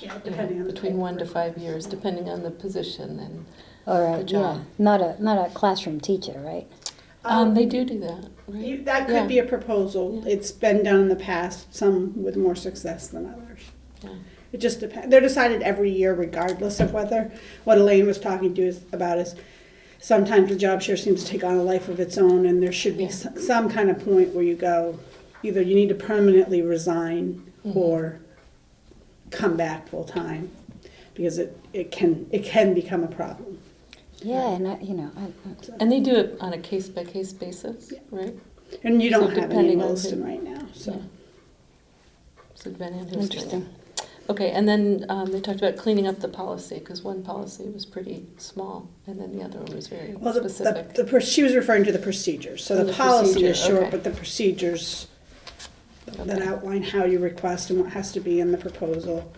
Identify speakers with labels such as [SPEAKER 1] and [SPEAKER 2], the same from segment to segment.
[SPEAKER 1] Yeah, depending on the
[SPEAKER 2] between
[SPEAKER 1] type
[SPEAKER 2] one
[SPEAKER 1] of
[SPEAKER 2] to five
[SPEAKER 1] request.
[SPEAKER 2] years, depending on the position and,
[SPEAKER 3] All
[SPEAKER 2] The
[SPEAKER 3] right,
[SPEAKER 2] job.
[SPEAKER 3] yeah, not a, not a classroom teacher, right?
[SPEAKER 2] um, they do do that, right?
[SPEAKER 1] You, that
[SPEAKER 2] Yeah.
[SPEAKER 1] could be a proposal. It's been done in the past, some with more success than others.
[SPEAKER 2] Yeah.
[SPEAKER 1] It just depends. They're decided every year regardless of whether, what Elaine was talking to us about is sometimes the job share seems to take on a life of its own and there should be
[SPEAKER 2] Yeah.
[SPEAKER 1] s- some kind of point where you go, either you need to permanently resign
[SPEAKER 2] Mm-hmm.
[SPEAKER 1] or come back full time because it, it can, it can become a problem.
[SPEAKER 3] Yeah, and I, you know, I, I-
[SPEAKER 2] And they do it on a case by case basis, right?
[SPEAKER 1] And you
[SPEAKER 2] So
[SPEAKER 1] don't have any
[SPEAKER 2] depending
[SPEAKER 1] in
[SPEAKER 2] on
[SPEAKER 1] Williston
[SPEAKER 2] who-
[SPEAKER 1] right now, so.
[SPEAKER 2] Yeah. So it's been
[SPEAKER 3] Interesting.
[SPEAKER 2] interesting. Okay, and then um, they talked about cleaning up the policy, because one policy was pretty small, and then the other one was very
[SPEAKER 1] Well, the, the,
[SPEAKER 2] specific.
[SPEAKER 1] the, pro- she was referring to the procedures, so
[SPEAKER 2] Oh,
[SPEAKER 1] the
[SPEAKER 2] the
[SPEAKER 1] policy is
[SPEAKER 2] procedure,
[SPEAKER 1] short,
[SPEAKER 2] okay.
[SPEAKER 1] but the procedures that
[SPEAKER 2] Okay.
[SPEAKER 1] outline how you request and what has to be in the proposal,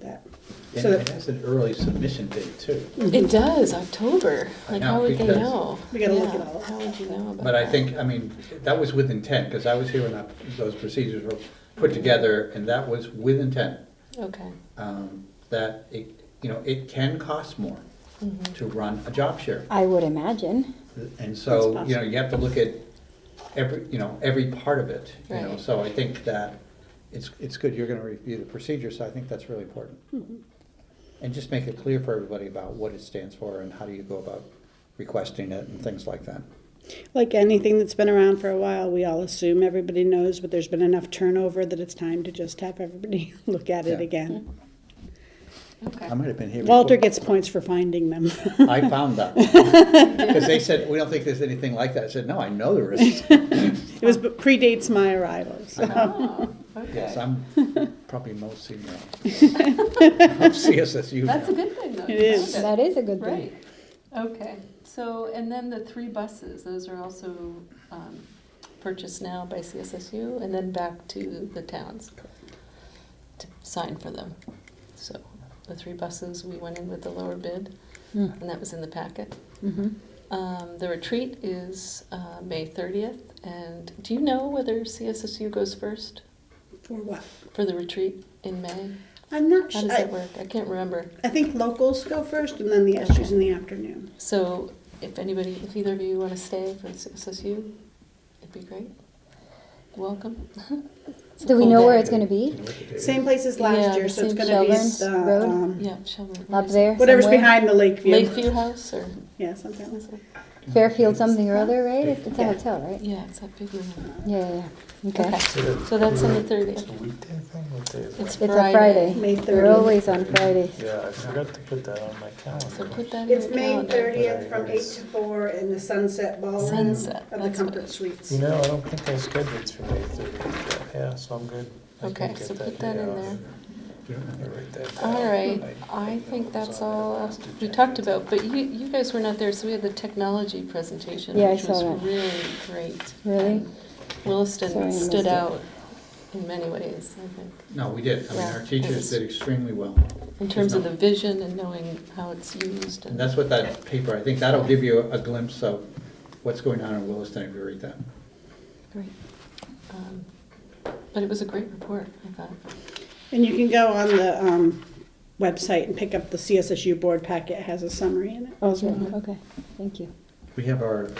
[SPEAKER 1] that,
[SPEAKER 4] And
[SPEAKER 1] so
[SPEAKER 4] it
[SPEAKER 1] that,
[SPEAKER 4] has an early submission date too.
[SPEAKER 2] It does, October,
[SPEAKER 4] I
[SPEAKER 2] like
[SPEAKER 4] know,
[SPEAKER 2] how would they
[SPEAKER 4] because-
[SPEAKER 2] know?
[SPEAKER 1] We gotta look
[SPEAKER 2] Yeah,
[SPEAKER 1] at all
[SPEAKER 2] How
[SPEAKER 1] that.
[SPEAKER 2] would you know about that?
[SPEAKER 4] But I think, I mean, that was with intent, because I was here when that- those procedures were put together, and that was with intent.
[SPEAKER 2] Okay,
[SPEAKER 4] um, That it, you know, it can cost more
[SPEAKER 1] Mm-hmm.
[SPEAKER 2] Mhm.
[SPEAKER 4] to run a job share.
[SPEAKER 3] I would imagine.
[SPEAKER 4] And so,
[SPEAKER 1] That's
[SPEAKER 4] you know, you have to look at every, you know, every part of it, you know,
[SPEAKER 2] Right.
[SPEAKER 4] so I think that it's, it's good, you're gonna review the procedure, so I think that's really important.
[SPEAKER 1] Mm-hmm.
[SPEAKER 4] And just make it clear for everybody about what it stands for and how do you go about requesting it and things like that.
[SPEAKER 1] like anything that's been around for a while, we all assume everybody knows, but there's been enough turnover that it's time to just have everybody look at it
[SPEAKER 4] Yeah.
[SPEAKER 1] again.
[SPEAKER 2] okay.
[SPEAKER 4] I might have been here.
[SPEAKER 1] Walter
[SPEAKER 4] before.
[SPEAKER 1] gets points for finding them.
[SPEAKER 4] I found that. Because they said, we don't think there's anything like that. I said, no, I know there is.
[SPEAKER 1] It was, predates my arrival, so.
[SPEAKER 2] Oh,
[SPEAKER 4] Yes,
[SPEAKER 2] okay.
[SPEAKER 4] I'm probably most senior. of CSSU
[SPEAKER 2] That's a
[SPEAKER 4] now.
[SPEAKER 2] good thing, though.
[SPEAKER 1] It
[SPEAKER 2] you
[SPEAKER 1] is.
[SPEAKER 2] found
[SPEAKER 3] That is a good thing.
[SPEAKER 2] Right, okay, so, and then the three buses, those are also um, purchased now by CSSU and then back to the towns to sign for them. So the three buses, we went in with the lower bid,
[SPEAKER 3] Mm.
[SPEAKER 2] and that was in the packet.
[SPEAKER 3] Mhm.
[SPEAKER 2] Um, The retreat is uh, May 30th, and do you know whether CSSU goes first
[SPEAKER 1] For what?
[SPEAKER 2] for the retreat in May?
[SPEAKER 1] I'm not
[SPEAKER 2] How
[SPEAKER 1] sure,
[SPEAKER 2] does that
[SPEAKER 1] I,
[SPEAKER 2] work? I can't remember.
[SPEAKER 1] I think locals go first and then the SUs in the afternoon.
[SPEAKER 2] So if anybody, if either of you want to stay for SSU, it'd be great. Welcome. It's a
[SPEAKER 3] Do we
[SPEAKER 2] full
[SPEAKER 3] know where
[SPEAKER 2] day.
[SPEAKER 3] it's gonna be?
[SPEAKER 1] Same place as
[SPEAKER 2] Yeah,
[SPEAKER 1] last
[SPEAKER 2] the
[SPEAKER 1] year, so it's
[SPEAKER 2] same
[SPEAKER 1] gonna be the,
[SPEAKER 3] Shelburne Road?
[SPEAKER 1] um,
[SPEAKER 2] Yeah, Shelburne.
[SPEAKER 3] Up there?
[SPEAKER 1] Whatever's
[SPEAKER 3] somewhere?
[SPEAKER 1] behind the lake view.
[SPEAKER 2] Lakeview House or?
[SPEAKER 1] Yeah, something.
[SPEAKER 2] is it-
[SPEAKER 3] Fairfield something or other, right? It's it's a
[SPEAKER 1] Yeah.
[SPEAKER 3] hotel, right?
[SPEAKER 2] Yeah, it's that big one.
[SPEAKER 3] Yeah, yeah, yeah. Okay.
[SPEAKER 2] Okay, so that's on the 30th.
[SPEAKER 5] weekday thing, what day is
[SPEAKER 2] It's
[SPEAKER 5] it?
[SPEAKER 3] It's a Friday.
[SPEAKER 1] May
[SPEAKER 3] They're
[SPEAKER 1] 30th.
[SPEAKER 3] always on Fridays.
[SPEAKER 5] Yeah, I forgot to put that on my
[SPEAKER 2] So
[SPEAKER 5] calendar.
[SPEAKER 2] put that in your
[SPEAKER 1] It's May
[SPEAKER 2] calendar.
[SPEAKER 1] thirtieth from eight to four in the Sunset Ballroom of
[SPEAKER 2] Sunset,
[SPEAKER 1] the
[SPEAKER 2] that's what
[SPEAKER 1] Comfort
[SPEAKER 2] it-
[SPEAKER 1] Suites.
[SPEAKER 5] You know, I don't think I scheduled for May thirtieth, yeah, so I'm good. I can
[SPEAKER 2] Okay,
[SPEAKER 5] get
[SPEAKER 2] so put that
[SPEAKER 5] day
[SPEAKER 2] in
[SPEAKER 5] off.
[SPEAKER 2] there.
[SPEAKER 5] I write that down.
[SPEAKER 2] All right, I think that's all uh, we talked about, but you, you guys were not there, so we had the technology presentation,
[SPEAKER 3] Yeah, I
[SPEAKER 2] which was
[SPEAKER 3] saw that.
[SPEAKER 2] really great.
[SPEAKER 3] Really?
[SPEAKER 2] And Williston
[SPEAKER 3] Sorry, I
[SPEAKER 2] stood
[SPEAKER 3] missed it.
[SPEAKER 2] out in many ways, I think,
[SPEAKER 4] No, we did. I mean,
[SPEAKER 2] Yeah,
[SPEAKER 4] our
[SPEAKER 2] it
[SPEAKER 4] teachers
[SPEAKER 2] was-
[SPEAKER 4] did extremely well.
[SPEAKER 2] in terms of the
[SPEAKER 4] There's no-
[SPEAKER 2] vision and knowing how it's used.
[SPEAKER 4] And that's what that paper, I think that'll give you a glimpse of what's going on in Williston if you read that.
[SPEAKER 2] Great. Um, But it was a great report, I thought.
[SPEAKER 1] And you can go on the, um, website and pick up the CSSU board packet, it has a summary in it.
[SPEAKER 3] Oh, good. okay, thank you.
[SPEAKER 4] We have our,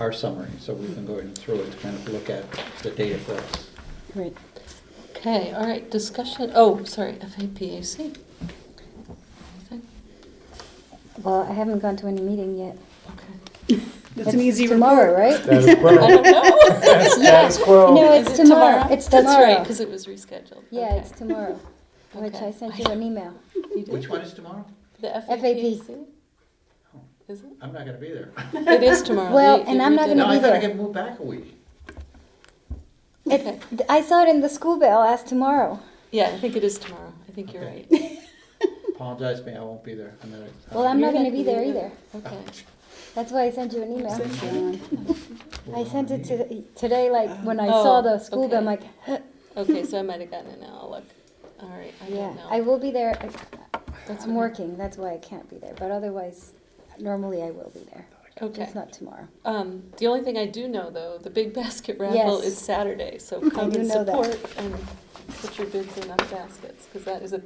[SPEAKER 4] our summary, so we can go in through it to kind of look at the data for us.
[SPEAKER 3] Great.
[SPEAKER 2] Okay, all right, discussion, oh, sorry, FAPAC. Anything?
[SPEAKER 3] Well, I haven't gone to any meeting yet.
[SPEAKER 2] Okay.
[SPEAKER 1] It's an easy
[SPEAKER 3] Tomorrow,
[SPEAKER 1] report.
[SPEAKER 3] right?
[SPEAKER 2] I don't know.
[SPEAKER 5] Status quo. Status quo.
[SPEAKER 3] No,
[SPEAKER 2] Is
[SPEAKER 3] it's
[SPEAKER 2] it
[SPEAKER 3] tomorrow. It's
[SPEAKER 2] That's right,
[SPEAKER 3] tomorrow.
[SPEAKER 2] because it was rescheduled.
[SPEAKER 3] Yeah,
[SPEAKER 2] Okay.
[SPEAKER 3] it's tomorrow, which
[SPEAKER 2] Okay.
[SPEAKER 3] I sent you an email.
[SPEAKER 2] You did?
[SPEAKER 4] Which one is tomorrow?
[SPEAKER 2] The
[SPEAKER 3] FAP.
[SPEAKER 2] FAPAC? Is it?
[SPEAKER 4] I'm not gonna be there.
[SPEAKER 2] It is tomorrow.
[SPEAKER 3] Well,
[SPEAKER 2] They- they
[SPEAKER 3] and I'm not
[SPEAKER 2] redid
[SPEAKER 4] No,
[SPEAKER 3] gonna
[SPEAKER 4] I
[SPEAKER 3] be
[SPEAKER 4] thought I
[SPEAKER 3] there.
[SPEAKER 4] get moved back a week.
[SPEAKER 2] it. Okay,
[SPEAKER 3] Th- I saw it in the school bell as tomorrow.
[SPEAKER 2] yeah, I think it is tomorrow. I think you're
[SPEAKER 4] Okay.
[SPEAKER 2] right.
[SPEAKER 4] Apologize to me, I won't be there. I'm not-
[SPEAKER 3] Well, I'm
[SPEAKER 2] You're
[SPEAKER 3] not going to be there either.
[SPEAKER 2] Okay.
[SPEAKER 3] That's why I sent you an email.
[SPEAKER 1] Send you one.
[SPEAKER 3] I sent it to, today, like when I
[SPEAKER 2] Oh,
[SPEAKER 3] saw the school bell, I'm like,
[SPEAKER 2] okay. Okay, so I might have gotten it now. I'll look. All right, I
[SPEAKER 3] yeah,
[SPEAKER 2] don't know.
[SPEAKER 3] I will be there.
[SPEAKER 2] That's
[SPEAKER 3] I'm
[SPEAKER 2] okay.
[SPEAKER 3] working, that's why I can't be there. But otherwise, normally I will be there.
[SPEAKER 2] Okay.
[SPEAKER 3] Just not tomorrow.
[SPEAKER 2] Um, the only thing I do know though, the big basket raffle
[SPEAKER 3] Yes.
[SPEAKER 2] is Saturday, so come
[SPEAKER 3] do
[SPEAKER 2] and
[SPEAKER 3] know that.
[SPEAKER 2] support and put your bids in on baskets because that is a